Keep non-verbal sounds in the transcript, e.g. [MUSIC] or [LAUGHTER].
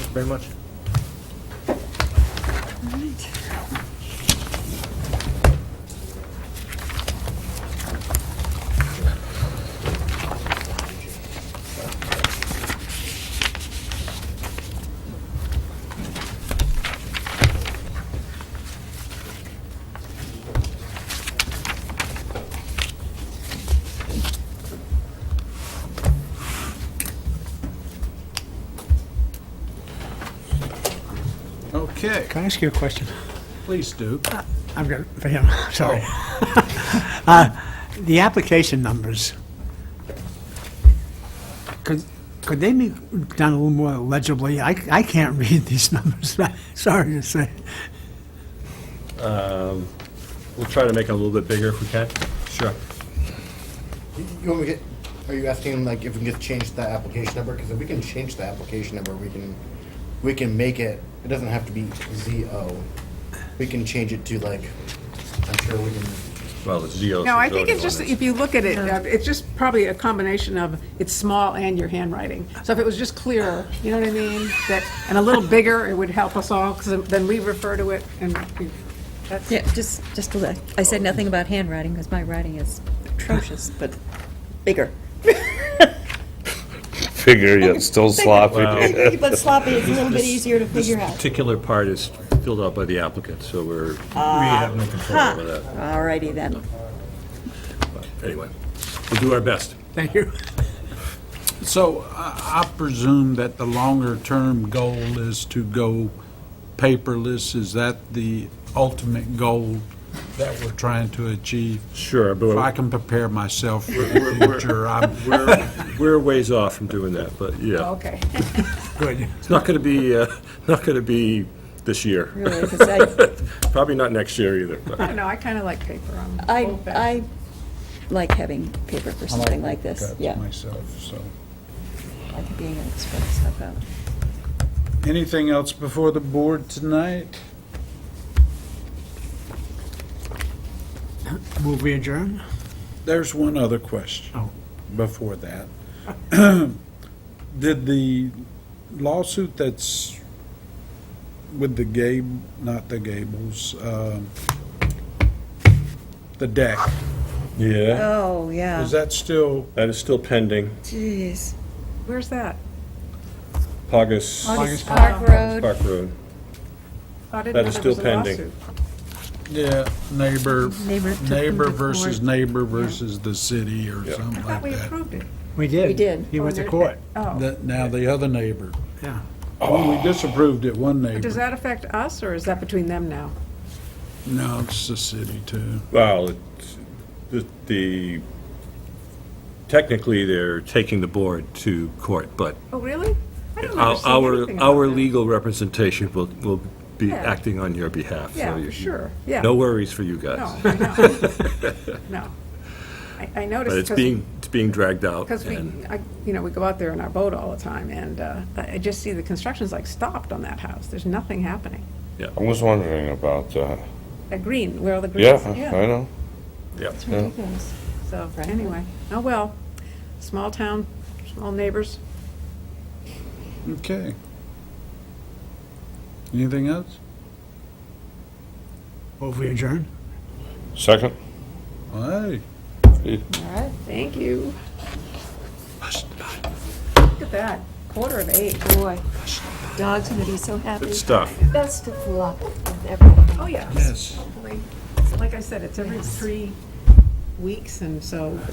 very much. Okay, Can I ask you a question? please do. I've got, for him, [LAUGHS] sorry. Uh, The application numbers, could, could they be done a little more legibly? I, I can't [LAUGHS] read these numbers, sorry to say. We'll try to make it a little bit bigger if we can. Sure. You want me to get, are you asking like if we can just change the application number? Because if we can change the application number, we can, we can make it, it doesn't have to be ZO. We can change it to like, I'm sure we can, Well, the zeros. No, I think it's just, if you look at it, uh, it's just probably a combination of it's small and your handwriting. So if it was just clearer, you know what I mean? That, and a little bigger, it would help us all, because then we refer to it and we- that's. Yeah, just, just a little. I said nothing about handwriting, because my writing is atrocious, but bigger. figure yet still sloppy. But sloppy is a little bit easier to figure This out. particular part is filled out by the applicant, so we're, we Uh, have no control over that. All righty then. But Anyway, we'll do our best. Thank you. So I I presume that the longer-term goal is to go paperless. Is that the ultimate goal that we're trying to achieve? Sure, but If I we're- can prepare myself for We're- the we're- future, I'm, we're, [LAUGHS] we're a ways off from doing that, but yeah. Okay. Good. It's not going to be, uh, [LAUGHS] not going to be this year. Really, 'cause I, Probably not next year either, but. [LAUGHS] I don't know, I kind of like paper. I'm I, old-fashioned. I like having paper for something like this, that's yeah. myself, so. I like being able to spread stuff out. Anything else before the board tonight? Will we adjourn? There's one other question Oh. before that. [CLEARS THROAT] Did the lawsuit that's with the Gable, not the Gables, um, the deck, Uh-huh. Yeah, Oh, yeah. is that still, that is still pending. Jeez. Where's that? Pogus August Park Road. Park Road. I didn't That know is there still was a pending. lawsuit. yeah, neighbor, Neighbor took them neighbor to versus court. neighbor versus the city or something I thought like we that? approved it. We did. We did. He went Oh, to did- court, Oh, That- Now the other neighbor, yeah. well, we disapproved it, one does neighbor. that affect us, or is that between them now? No, it's the city too. Well, it's- the- the, technically, they're taking the board to court, but Oh, really? I don't our, understand anything our about our that. legal representation will, will be Yeah. acting on your behalf. so Yeah, you- for sure, yeah. No worries for you No, guys. [LAUGHS] I know. no. I I But it's noticed being, it's being dragged out. because we, and- I- you know, we go out there in our boat all the time, and uh, I I just see the construction's like stopped on that house. There's nothing happening. I was wondering about that. A green, where all the Yeah, greens, I know. yeah. It's ridiculous. So, anyway, oh well, small town, small neighbors. Okay. Anything else? Will we adjourn? Second? All right. All right. Thank you. Look at that, quarter of eight. Boy, dog's gonna be so happy. Good stuff. Best of luck with everything. Oh, yeah. Yes. Hopefully, Like I said, it's every three weeks, and so